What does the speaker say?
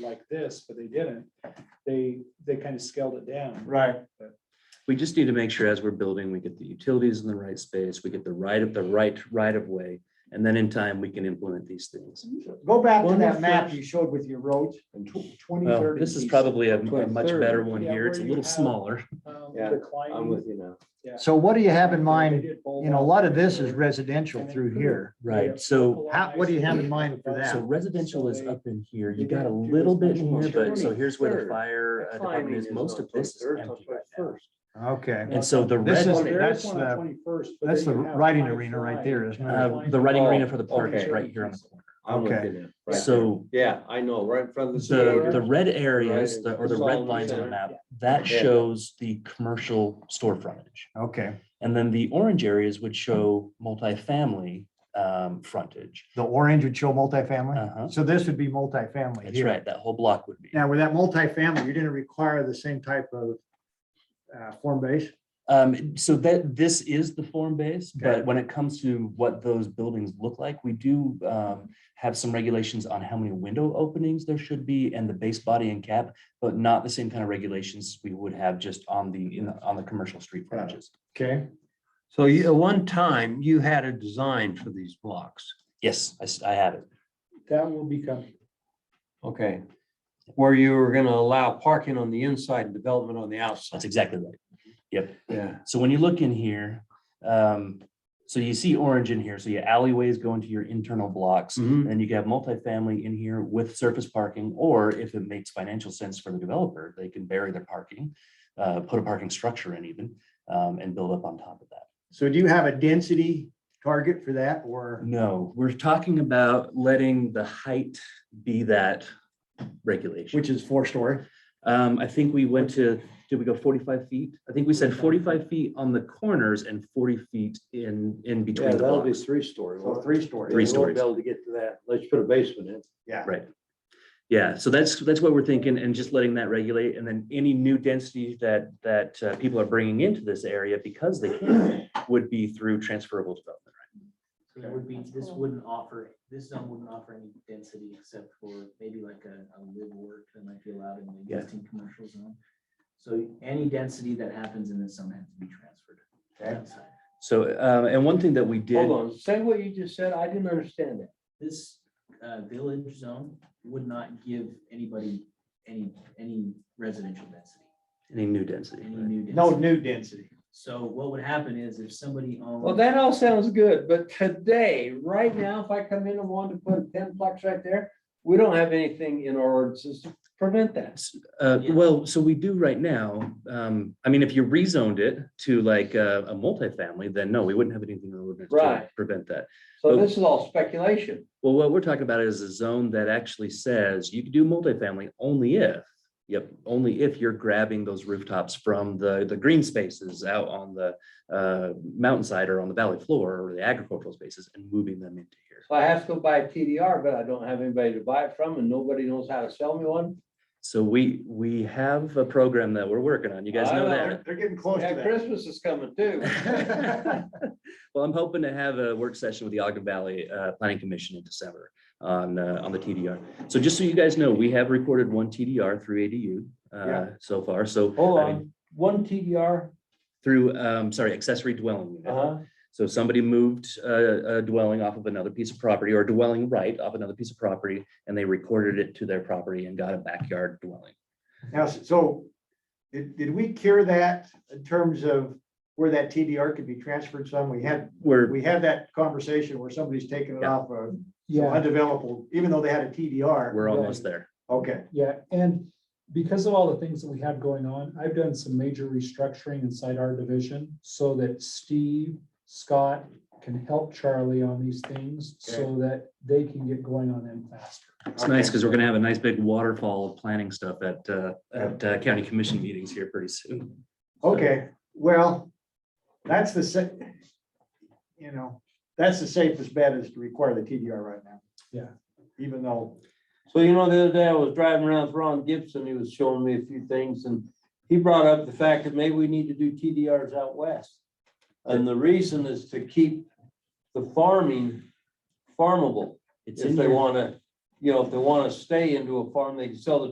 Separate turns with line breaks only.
like this, but they didn't. They, they kind of scaled it down.
Right.
We just need to make sure as we're building, we get the utilities in the right space, we get the right of the right right of way. And then in time, we can implement these things.
Go back to
One
that
of
map
the-
you showed with your roads.
And tw- twenty
Well,
thirty.
this is probably a a much better one
Yeah,
here. It's a
where you
little
have-
smaller.
Um,
Yeah,
declining.
I'm with you now.
Yeah.
So what do you have in
They
mind?
did bulb
You know, a
out
lot of this
there.
is residential through here.
Right, so,
How, what do you have in mind for
so
that?
residential is up in here. You got a little bit in here, but so here's where the fire uh, department is. Most of this is empty right now.
Okay,
And so the
This is-
red,
Well, there
that's
one on
the-
21st, but
that's
then
the
you have
riding
Pine
arena right
Fly.
there, isn't it?
uh, the riding arena for the
Oh,
park is
okay.
right here on the corner.
I'm with
Okay.
you now. Right.
So
Yeah, I know, right in front of the.
the,
theater.
the red areas, the- or the
It's all
red
in the
lines on the
center.
map, that
Yeah.
shows the commercial store frontage.
Okay,
And then the orange areas would show multifamily um, frontage.
the orange would show multifamily.
Uh-huh.
So this would be multifamily
That's
here.
right, that whole block would be.
Now, with that multifamily, you're gonna require the same type of uh, form base?
Um, so that, this is the form base,
Okay.
but when it comes to what those buildings look like, we do um, have some regulations on how many window openings there should be and the base body and cap, but not the same kind of regulations we would have just on the, in, the- on the commercial street
Got it.
frontages.
Okay,
So you, at one time, you had a design for these blocks.
Yes, I, s- I have it.
That will become,
Okay. Where you were gonna allow parking on the inside and development on the
That's
outside.
exactly right.
Yeah.
So when you look in here, um, so you see orange in here, so your alleyways go into your internal blocks.
Mhm.
And you can have multifamily in here with surface parking, or if it makes financial sense for the developer, they can bury their parking, uh, put a parking structure in even, um, and build up on top of that.
so do you have a density target for that or?
No, we're talking about letting the height be that regulation.
Which is four story?
Um, I think we went to, did we go forty-five feet? I think we said forty-five feet on the corners and forty feet in, in
Yeah,
between the
that'll be
blocks.
three story.
So three story.
Three
They won't
stories.
Be able to get to that. Let's put a basement in.
Yeah.
Right. Yeah, so that's, that's what we're thinking and just letting that regulate. And then any new density that, that uh, people are bringing into this area because they can would be through transferable development.
So It would be, this wouldn't offer, this zone wouldn't offer any density except for maybe like a, a live work that might be allowed in the
Yeah.
existing commercial zone. So any density that happens in this zone has to be transferred.
Okay.
outside.
So, um, and one thing that we did,
Hold on, say what you just said. I didn't understand that.
This, uh, village zone would not give anybody any, any residential density,
any new density.
Mm-hmm.
any new
No
density.
new density.
So what would happen is if somebody owned.
Well, that all sounds good, but today, right now, if I come in and wanted to put a ten plex right there, we don't have anything in our ordinances to prevent that.
Uh,
Yeah.
well, so we do right now. Um, I mean, if you rezoned it to like a, a multifamily, then no, we wouldn't have anything in our ordinance to
Right.
prevent that.
So this is all speculation.
Well, what we're talking about is a zone that actually says you can do multifamily only if, yep, only if you're grabbing those rooftops from the, the green spaces out on the uh, mountainside or on the valley floor or the agricultural spaces and moving them into here.
So I have to go buy a TDR, but I don't have anybody to buy it from and nobody knows how to sell me one.
So we, we have a program that we're working on. You guys know
I know.
that.
They're getting close
Yeah, Christmas is coming too.
Well, I'm hoping to have a work session with the Ogden Valley uh, Planning Commission in December on, uh, on the TDR. So just so you guys know, we have recorded one TDR through ADU uh,
Yeah.
so far, so.
Hold
I mean,
on, one TDR,
Through, um, sorry, accessory dwelling unit.
uh-huh,
So somebody moved uh, a dwelling off of another piece of property or a dwelling right off another piece of property and they recorded it to their property and got a backyard dwelling.
Now, so did, did we cure that in terms of where that TDR could be transferred some? We had,
We're,
we had that conversation where somebody's taking it
Yeah.
off of some
yeah,
undevelopable, even though they had a TDR.
we're almost there.
Okay,
yeah. And because of all the things that we have going on, I've done some major restructuring inside our division so that Steve, Scott can help Charlie on these things so that they can get going on them faster.
It's nice because we're going to have a nice big waterfall of planning stuff at, uh, at uh, county commission meetings here pretty soon.
okay, well, that's the sa- you know, that's the safest bet is to require the TDR right now.
Yeah.
Even though,
so you know, the other day I was driving around with Ron Gibson, he was showing me a few things and he brought up the fact that maybe we need to do TDRs out west. And the reason is to keep the farming farmable,
It's
if
in
they
your-
wanna you know, if they want to stay into a farm, they can sell the